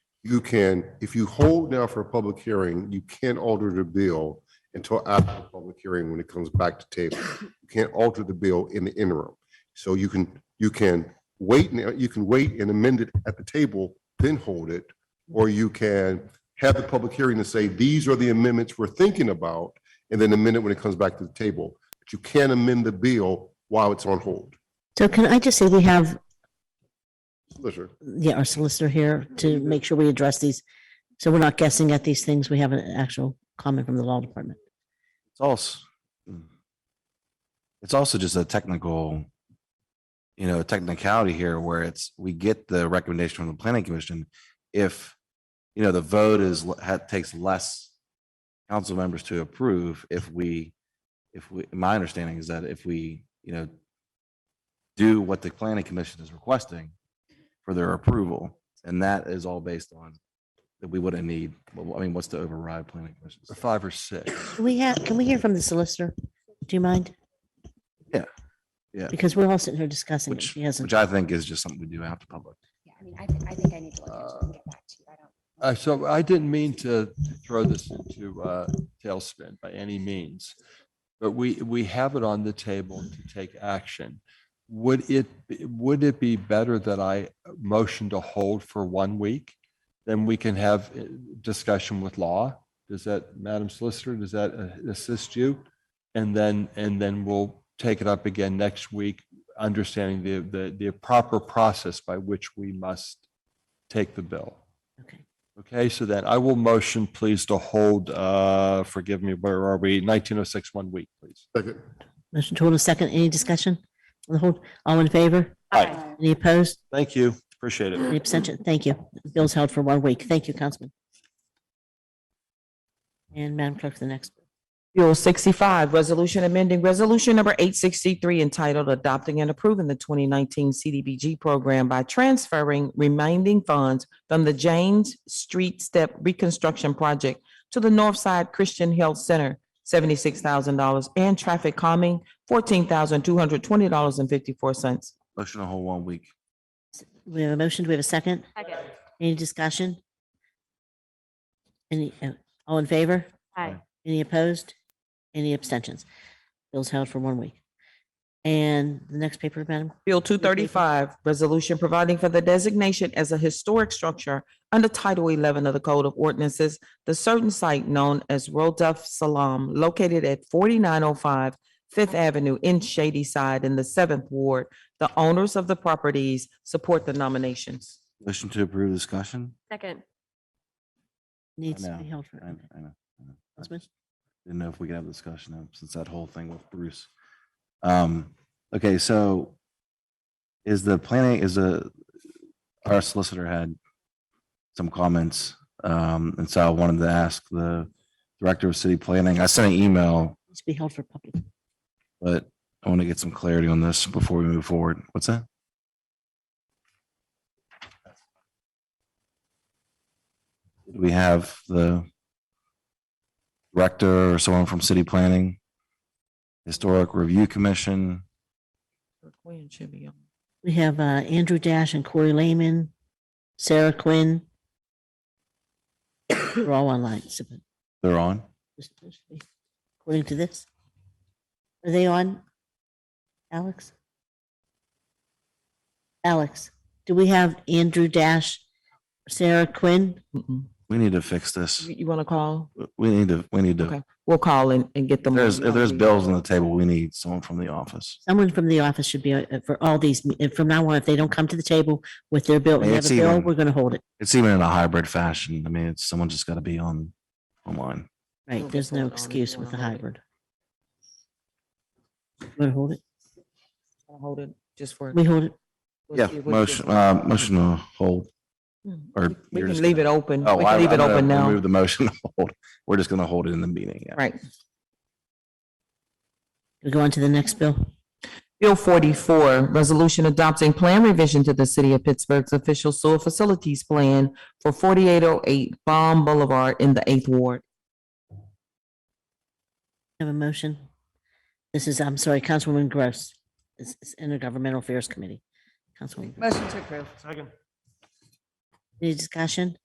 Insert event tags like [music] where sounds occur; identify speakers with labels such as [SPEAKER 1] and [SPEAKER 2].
[SPEAKER 1] you can, if you hold now for a public hearing, you can't alter the bill until after the public hearing when it comes back to table. You can't alter the bill in the interim. So you can, you can wait, now. you can wait and amend it at the table, then hold it. Or you can have the public hearing and say, these are the amendments we're thinking about, and then amend it when it comes back to the table. But you can't amend the bill while it's on hold.
[SPEAKER 2] So can I just say we have,
[SPEAKER 1] Solicitor,
[SPEAKER 2] yeah, our solicitor here to make sure we address these. So we're not guessing at these things. We have an actual comment from the law department.
[SPEAKER 3] It's also, it's also just a technical, you know, technicality here where it's, we get the recommendation from the planning commission. If, you know, the vote is, had, takes less council members to approve if we, if we, my understanding is that if we, you know, do what the planning commission is requesting for their approval, and that is all based on that we wouldn't need, well, I mean, what's the override planning commission?
[SPEAKER 4] five or six.
[SPEAKER 2] Can we have, can we hear from the solicitor? Do you mind?
[SPEAKER 3] Yeah. Yeah.
[SPEAKER 2] Because we're all sitting here discussing it.
[SPEAKER 3] Which-
[SPEAKER 2] She hasn't.
[SPEAKER 3] Which I think is just something we do after public.
[SPEAKER 5] Yeah, I mean, I think, I think I need to look into it and get back to you. I
[SPEAKER 4] Uh,
[SPEAKER 5] don't.
[SPEAKER 4] so I didn't mean to throw this into uh tailspin by any means. But we, we have it on the table to take action. Would it, be- would it be better that I motion to hold for one week? Then we can have uh, discussion with law. Does that, Madam Solicitor, does that uh, assist you? And then, and then we'll take it up again next week, understanding the, the, the proper process by which we must take the bill.
[SPEAKER 2] Okay.
[SPEAKER 4] Okay, so then I will motion, please, to hold, uh, forgive me, where are we? 1906, one week, please.
[SPEAKER 1] second.
[SPEAKER 2] Motion to hold a second. Any discussion? On the hold, all in favor?
[SPEAKER 5] Aye.
[SPEAKER 2] Any opposed?
[SPEAKER 4] Thank you. Appreciate
[SPEAKER 2] Any
[SPEAKER 4] it.
[SPEAKER 2] abstention? Thank you. Bill's held for one week. Thank you, Councilman. And Madam Clerk, the next.
[SPEAKER 6] Bill sixty-five, resolution amending resolution number eight sixty-three entitled adopting and approving the twenty nineteen CDBG program by transferring remaining funds from the James Street Step Reconstruction Project to the Northside Christian Health Center, seventy-six thousand dollars, and traffic calming, fourteen thousand two hundred twenty dollars and fifty-four cents.
[SPEAKER 3] Motion to hold one week.
[SPEAKER 2] We have a motion. Do we have a second?
[SPEAKER 5] Second.
[SPEAKER 2] Any discussion? Any, uh, all in favor?
[SPEAKER 5] Aye.
[SPEAKER 2] Any opposed? Any abstentions? Bill's held for one week. And the next paper, Madam?
[SPEAKER 6] Bill two thirty-five, resolution providing for the designation as a historic structure under Title eleven of the Code of Ordinances, the certain site known as Rodef Salam, located at 4905 Fifth Avenue in Shady Side in the seventh ward. The owners of the properties support the nominations.
[SPEAKER 3] Motion to approve discussion.
[SPEAKER 5] Second.
[SPEAKER 2] Needs to
[SPEAKER 3] know,
[SPEAKER 2] be held for.
[SPEAKER 3] I know, I know, I know. I
[SPEAKER 2] Councilman?
[SPEAKER 3] just Didn't know if we could have a discussion now since that whole thing with Bruce. Um, okay, so is the planning, is a, our solicitor had some comments. Um, and so I wanted to ask the director of city planning, I sent an email,
[SPEAKER 2] Needs to be held for public.
[SPEAKER 3] but I want to get some clarity on this before we move forward. What's that? Do we have the director or someone from city planning? Historic Review Commission?
[SPEAKER 6] Quinn should be on.
[SPEAKER 2] We have uh, Andrew Dash and Corey Lehman, Sarah Quinn. [coughs] They're all online. so-
[SPEAKER 3] They're on?
[SPEAKER 2] According to this. Are they on? Alex? Alex, do we have Andrew Dash, Sarah Quinn?
[SPEAKER 6] Mm-mm.
[SPEAKER 3] We need to fix this.
[SPEAKER 6] You, you want to call?
[SPEAKER 3] We need to, we need
[SPEAKER 6] Okay.
[SPEAKER 3] to,
[SPEAKER 6] We'll call and, and get
[SPEAKER 3] if
[SPEAKER 6] them.
[SPEAKER 3] there's, if there's bills on the table, we need someone from the office.
[SPEAKER 2] Someone from the office should be uh, for all these, uh, from now on, if they don't come to the table with their bill, we have a
[SPEAKER 3] It's
[SPEAKER 2] bill,
[SPEAKER 3] even-
[SPEAKER 2] we're going to hold it.
[SPEAKER 3] It's even in a hybrid fashion. I mean, it's, someone just got to be on, online.
[SPEAKER 2] Right,
[SPEAKER 6] We'll
[SPEAKER 2] there's
[SPEAKER 6] hold it
[SPEAKER 2] no
[SPEAKER 6] on if
[SPEAKER 2] excuse
[SPEAKER 6] you
[SPEAKER 2] with the
[SPEAKER 6] wanna hold it.
[SPEAKER 2] hybrid. Want to hold it?
[SPEAKER 6] Hold it just for.
[SPEAKER 2] We hold it?
[SPEAKER 6] we'll
[SPEAKER 3] Yeah,
[SPEAKER 6] see what
[SPEAKER 3] motion,
[SPEAKER 6] this-
[SPEAKER 3] uh, motion to hold.
[SPEAKER 6] Mm.
[SPEAKER 3] or
[SPEAKER 6] We
[SPEAKER 3] you're
[SPEAKER 6] can
[SPEAKER 3] just
[SPEAKER 6] leave it
[SPEAKER 3] gonna-
[SPEAKER 6] open.
[SPEAKER 3] Oh,
[SPEAKER 6] We
[SPEAKER 3] I-
[SPEAKER 6] can leave
[SPEAKER 3] I'm
[SPEAKER 6] it
[SPEAKER 3] gonna
[SPEAKER 6] open now.
[SPEAKER 3] Remove the motion. to Hold. We're just going to hold it in the meeting. yeah.
[SPEAKER 6] Right.
[SPEAKER 2] We go on to the next bill?
[SPEAKER 6] Bill forty-four, resolution adopting plan revision to the city of Pittsburgh's official sewer facilities plan for forty-eight oh eight Baum Boulevard in the eighth ward.
[SPEAKER 2] Have a motion? This is, I'm sorry, Councilwoman Gross. This is Intergovernmental Affairs Committee. Councilwoman, Gross.
[SPEAKER 5] Motion to approve.
[SPEAKER 2] any discussion?